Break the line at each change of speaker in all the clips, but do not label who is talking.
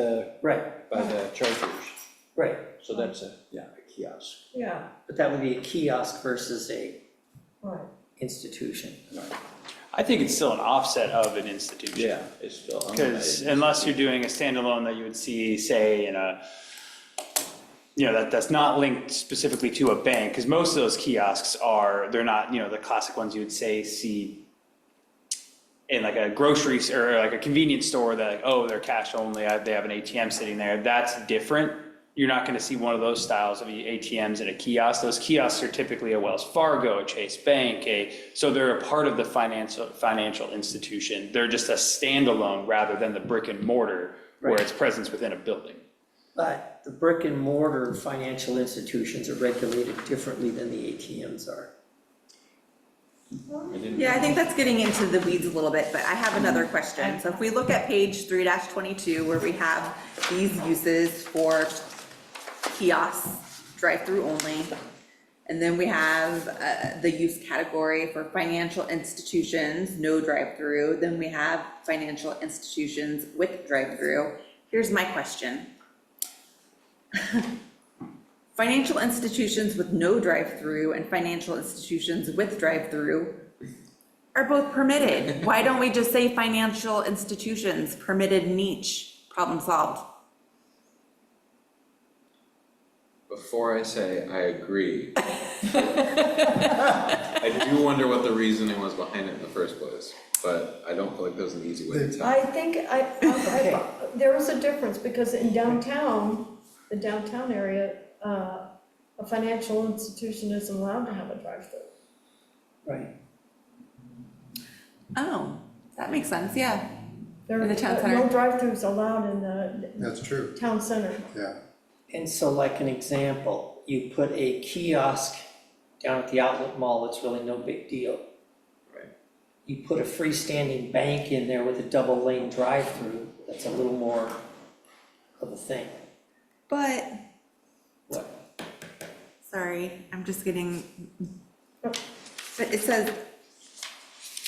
the,
right,
uh, by the chargers,
right,
so that's a, yeah, a kiosk.
yeah,
but that would be a kiosk versus a
right.
institution.
I think it's still an offset of an institution.
Yeah, it's still. owned by-
Because unless you're doing a standalone that you would see, say, in a, you know, that, that's not linked specifically to a bank, because most of those kiosks are, they're not, you know, the classic ones you would say, see in like a grocery s- or like a convenience store that, like, oh, they're cash only, I- they have an ATM sitting there, that's different. You're not gonna see one of those styles of ATMs at a kiosk. Those kiosks are typically a Wells Fargo, a Chase Bank, a, so they're a part of the financial, financial institution. They're just a standalone rather than the brick and mortar where
Right.
it's presence within a building.
But the brick and mortar financial institutions are regulated differently than the ATMs are.
Yeah, I think that's getting into the weeds a little bit, but I have another question. So if we look at page three twenty-two, where we have these uses for kiosks, drive-through only, and then we have, uh, the use category for financial institutions, no drive-through, then we have financial institutions with drive-through. Here's my question. Financial institutions with no drive-through and financial institutions with drive-through are both permitted. Why don't we just say financial institutions, permitted niche, problem solved?
Before I say I agree. I do wonder what the reasoning was behind it in the first place, but I don't feel like there's an easy way to
I
tell.
think I, I, I- there is a difference, because in downtown, the downtown area, uh, a financial institution isn't allowed to have a drive-through.
Right.
Oh, that makes sense, yeah.
There,
In the town
no
center.
drive-throughs allowed in the
That's true,
town center.
yeah.
And so like an example, you put a kiosk down at the outlet mall, it's really no big deal.
Right.
You put a freestanding bank in there with a double lane drive-through, that's a little more of a thing.
But,
What?
sorry, I'm just getting, but it says,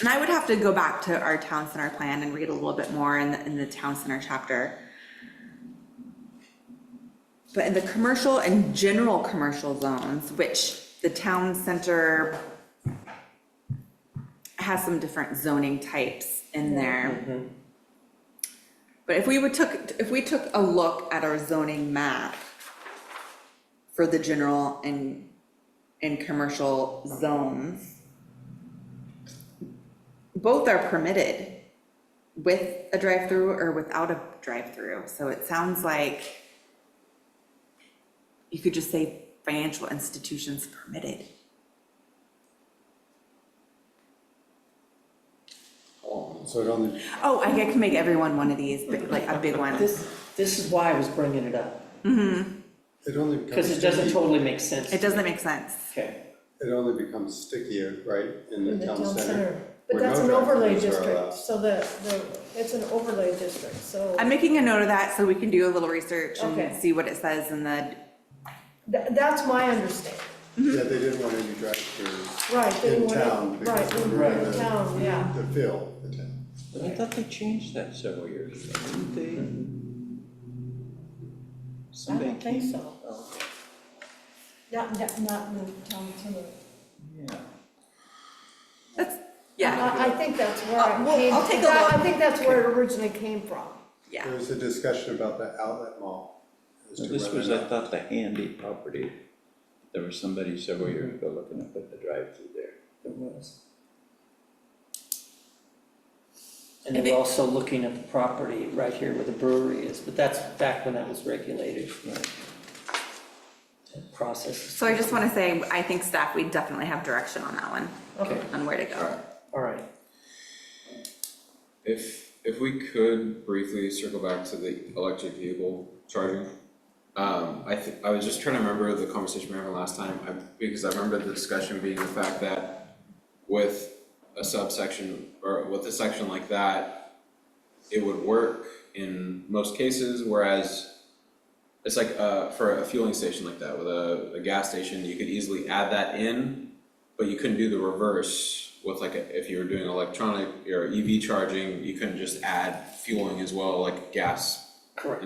and I would have to go back to our town center plan and read a little bit more in the, in the town center chapter. But in the commercial and general commercial zones, which the town center has some different zoning types in there. But if we would took, if we took a look at our zoning map for the general and, and commercial zones, both are permitted with a drive-through or without a drive-through, so it sounds like you could just say financial institutions permitted.
So it only,
Oh, I can make everyone one of these, but like a big one.
This, this is why I was bringing it up,
it only becomes
because it
sticky.
doesn't totally make sense.
It doesn't make sense.
Okay,
It only becomes stickier, right, in the town center.
But
where
that's
no
an overlay
drive-throughs are allowed.
district, so the, the, it's an overlay district, so
I'm making a note of that so we can do a little research
Okay.
and see what it says in the,
tha- that's my understanding.
Yeah, they didn't want any drive-throughs
Mm-hmm. Right, they
in
wanted-
town because
right,
they were
right,
gonna
in town, yeah.
to fill the town.
I thought they changed that several years ago, didn't they?
I
Somebody
don't think
came-
so.
Oh,
Not, not, not in the town center.
yeah.
that's, yeah,
I, I think that's where
Uh,
it came.
well, I'll take a
that-
look.
I think that's where it originally came from.
yeah.
There was a discussion about the outlet mall. as to
This
whether
was,
or
I
not-
thought, the handy property. There was somebody several years ago looking to put the drive-through there.
there was. And they were also looking at the property right here where the brewery is, but that's back when that was regulated. That Process,
So I just want to say, I think staff, we definitely have direction on that one,
okay,
on where to go.
all right.
If, if we could briefly circle back to the electric vehicle charging. Um, I thi- I was just trying to remember the conversation we were having last time, I, because I remember the discussion being the fact that with a subsection, or with a section like that, it would work in most cases, whereas it's like, uh, for a fueling station like that, with a, a gas station, you could easily add that in, but you couldn't do the reverse with like, a- if you were doing E electronic or EV charging, you couldn't just add fueling as well, like gas
Correct.